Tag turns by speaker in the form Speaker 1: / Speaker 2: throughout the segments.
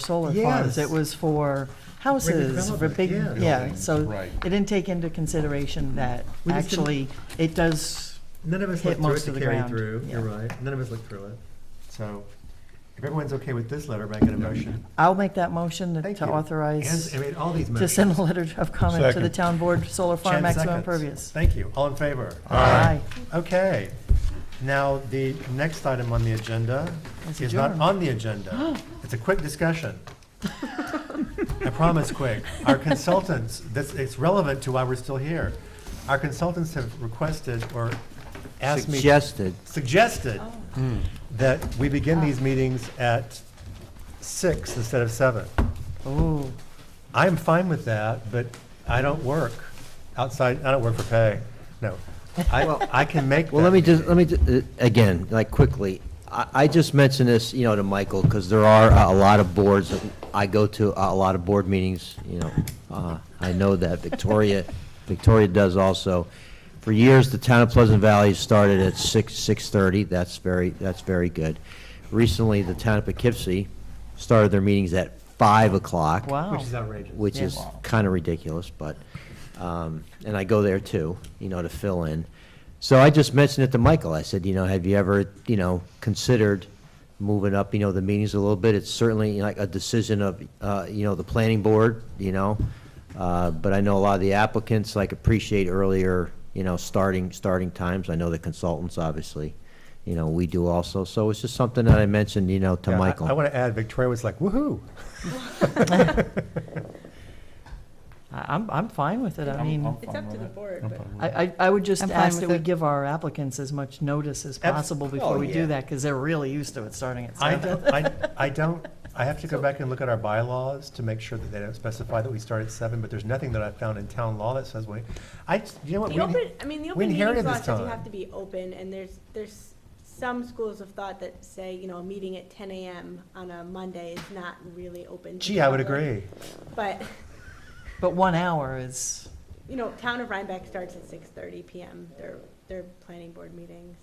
Speaker 1: solar farms.
Speaker 2: Yes.
Speaker 1: It was for houses, for
Speaker 2: development,
Speaker 1: big,
Speaker 2: yeah.
Speaker 1: yeah, so
Speaker 3: Right.
Speaker 1: it didn't take into consideration that
Speaker 2: We just didn't-
Speaker 1: actually, it does,
Speaker 2: None of us
Speaker 1: hit
Speaker 2: looked through
Speaker 1: most
Speaker 2: it to
Speaker 1: of the
Speaker 2: carry
Speaker 1: ground.
Speaker 2: through, you're
Speaker 1: Yeah.
Speaker 2: right, none of us looked through it. So, if everyone's okay with this letter, make it a motion.
Speaker 1: I'll make that motion to-
Speaker 2: Thank
Speaker 1: to
Speaker 2: you.
Speaker 1: authorize,
Speaker 2: And- I mean, all these
Speaker 1: to
Speaker 2: motions.
Speaker 1: send a letter of comment to the
Speaker 4: Second.
Speaker 1: town board, solar farm
Speaker 2: Jen
Speaker 1: maximum
Speaker 2: seconds.
Speaker 1: impervious.
Speaker 2: Thank you, all in favor?
Speaker 1: Aye.
Speaker 2: Okay, now, the next item on the agenda
Speaker 1: It's
Speaker 2: is not
Speaker 1: adjourned.
Speaker 2: on the agenda. It's a quick discussion. I promise, quick. Our consultants, this, it's relevant to why we're still here. Our consultants have requested or asked me.
Speaker 5: Suggested.
Speaker 2: suggested that we begin these meetings at six instead of seven.
Speaker 1: Oh,
Speaker 2: I'm fine with that, but I don't work outside, I don't work for pay, no. I, I can make
Speaker 5: Well,
Speaker 2: that
Speaker 5: let me just,
Speaker 2: meeting.
Speaker 5: let me, ju- uh, again, like quickly, I, I just mentioned this, you know, to Michael, because there are a lot of boards, I go to a lot of board meetings, you know, uh, I know that, Victoria, Victoria does also. For years, the town of Pleasant Valley started at six, six-thirty, that's very, that's very good. Recently, the town of Poughkeepsie started their meetings at five o'clock.
Speaker 1: wow.
Speaker 2: Which is outrageous.
Speaker 5: which
Speaker 1: Yeah.
Speaker 5: is kind of ridiculous, but, um, and I go there too, you know, to fill in. So I just mentioned it to Michael. I said, you know, have you ever, you know, considered moving up, you know, the meetings a little bit? It's certainly you know, like a decision of, uh, you know, the planning board, you know? Uh, but I know a lot of the applicants, like, appreciate earlier, you know, starting, starting times. I know the consultants, obviously, you know, we do also. So it's just something that I mentioned, you know, to
Speaker 2: Yeah, I-
Speaker 5: Michael.
Speaker 2: I want to add, Victoria was like, woo-hoo.
Speaker 1: I- I'm, I'm fine with it, I mean,
Speaker 3: I'm
Speaker 6: It's
Speaker 3: fine
Speaker 6: up to
Speaker 3: with
Speaker 6: the
Speaker 3: it.
Speaker 6: board,
Speaker 3: I'm
Speaker 6: but-
Speaker 3: fine with
Speaker 1: I,
Speaker 3: it.
Speaker 1: I- I would just
Speaker 7: I'm fine
Speaker 1: ask that
Speaker 7: with
Speaker 1: we
Speaker 7: it.
Speaker 1: give our applicants as much notice as
Speaker 2: Abs-
Speaker 1: possible
Speaker 2: oh,
Speaker 1: before we
Speaker 2: yeah.
Speaker 1: do that, because they're really used to it starting at
Speaker 2: I,
Speaker 1: seven.
Speaker 2: I, I don't, I have to go back and look at our bylaws to make sure that they don't specify that we start at seven, but there's nothing that I found in town law that says we, I, you know what?
Speaker 6: The
Speaker 2: we-
Speaker 6: open, I mean, the
Speaker 2: we
Speaker 6: open meetings
Speaker 2: inherited
Speaker 6: law
Speaker 2: this
Speaker 6: says you
Speaker 2: time.
Speaker 6: have to be open, and there's, there's some schools of thought that say, you know, a meeting at ten AM on a Monday is not really open. to
Speaker 2: Gee,
Speaker 6: the
Speaker 2: I would
Speaker 6: public.
Speaker 2: agree.
Speaker 6: But,
Speaker 1: But one hour is,
Speaker 6: you know, town of Rhinebeck starts at six thirty PM, their, their planning board meetings.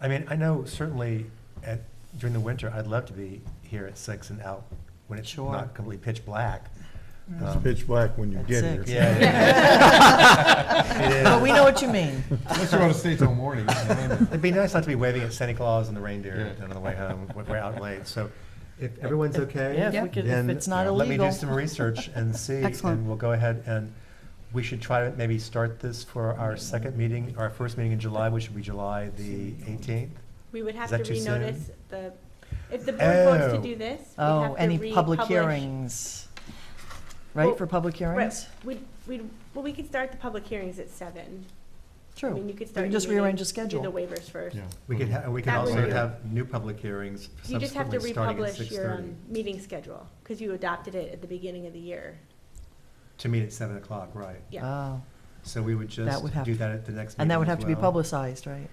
Speaker 2: I mean, I know certainly at, during the winter, I'd love to be here at six and out when it's
Speaker 1: Sure. Mm.
Speaker 2: not completely pitch black.
Speaker 4: It's
Speaker 2: Um,
Speaker 4: pitch black when you
Speaker 1: At
Speaker 4: get here.
Speaker 1: six.
Speaker 2: Yeah. It is.
Speaker 1: but we know what you mean.
Speaker 3: Unless you want to stay till morning. you know.
Speaker 2: It'd be nice not to be waving at Santa Claus and the reindeer
Speaker 3: Yeah.
Speaker 2: on the way home. when We're out late, so if everyone's okay,
Speaker 1: Yeah, if
Speaker 7: Yeah.
Speaker 1: we could, if
Speaker 2: then
Speaker 1: it's not
Speaker 2: let me
Speaker 1: illegal.
Speaker 2: do some research and see,
Speaker 7: Excellent.
Speaker 2: and we'll go ahead and we should try to maybe start this for our second meeting, our first meeting in July, which would be July the eighteenth.
Speaker 6: We would have
Speaker 2: Is
Speaker 6: to
Speaker 2: that too soon?
Speaker 6: renotice the, if the board votes to
Speaker 2: Oh.
Speaker 6: do this, we have to
Speaker 1: Oh, any public
Speaker 6: republish-
Speaker 1: hearings, right,
Speaker 6: Well,
Speaker 1: for public hearings?
Speaker 6: We'd, we'd, well, we could start the public hearings at seven. I mean,
Speaker 1: True.
Speaker 6: you could
Speaker 1: You
Speaker 6: start.
Speaker 1: can
Speaker 6: your
Speaker 1: just rearrange
Speaker 6: meeting,
Speaker 1: the schedule.
Speaker 6: Do the waivers first.
Speaker 3: Yeah.
Speaker 2: We could, ha- we could
Speaker 6: That
Speaker 2: also
Speaker 3: would-
Speaker 2: have new public hearings
Speaker 6: You just have to
Speaker 2: subsequently starting at
Speaker 6: republish
Speaker 2: six
Speaker 6: your
Speaker 2: thirty.
Speaker 6: um, meeting schedule, because you adopted it at the beginning of the year.
Speaker 2: To meet at seven o'clock, right.
Speaker 6: Yeah.
Speaker 1: Oh,
Speaker 2: So we would just
Speaker 1: would have
Speaker 2: do
Speaker 1: to-
Speaker 2: that at the next meeting
Speaker 1: and that would
Speaker 2: as
Speaker 1: have to be
Speaker 2: well.
Speaker 1: publicized, right?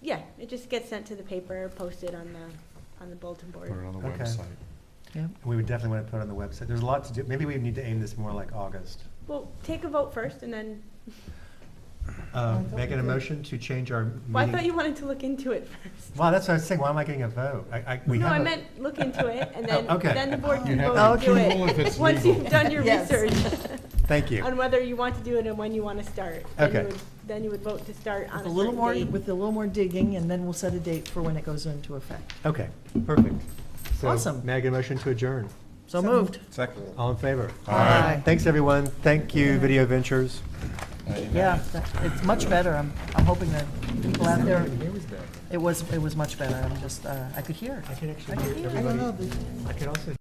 Speaker 6: Yeah, it just gets sent to the paper, posted on the, on the bulletin
Speaker 3: Put it
Speaker 6: board.
Speaker 3: on the
Speaker 2: Okay.
Speaker 3: website.
Speaker 1: Yep.
Speaker 2: We would definitely want to put it on the website. There's a lot to do. Maybe we need to aim this more like August.
Speaker 6: Well, take a vote first, and then,
Speaker 2: Um, Making a motion to change our meeting.
Speaker 6: well, I thought you wanted to look into it first.
Speaker 2: Wow, that's what I was saying. Why am I getting a vote? I, I, we
Speaker 6: No,
Speaker 2: have
Speaker 6: I
Speaker 2: a-
Speaker 6: meant look into it, and then,
Speaker 2: Oh, okay.
Speaker 6: then the board
Speaker 3: You
Speaker 6: can
Speaker 3: have
Speaker 6: vote to do
Speaker 3: approval if it's
Speaker 6: it. Once
Speaker 3: legal.
Speaker 6: you've done your
Speaker 7: Yes.
Speaker 6: research
Speaker 2: Thank you.
Speaker 6: on whether you want to do it and when you want to start. Then you
Speaker 2: Okay.
Speaker 6: would- Then you would vote to start on a
Speaker 1: With a little
Speaker 6: certain
Speaker 1: more,
Speaker 6: date.
Speaker 1: with a little more digging, and then we'll set a date for when it goes into effect.
Speaker 2: Okay, perfect. So,
Speaker 1: Awesome.
Speaker 2: May I get a motion to adjourn?
Speaker 1: So moved.
Speaker 3: Second.
Speaker 2: All in favor?
Speaker 1: Aye.
Speaker 2: Thanks, everyone. Thank you, Video Ventures.
Speaker 1: Yeah, that- it's much better. I'm, I'm hoping that people out there, it was, it was much better. I'm just, uh, I could hear.
Speaker 2: I can actually hear everybody. I can also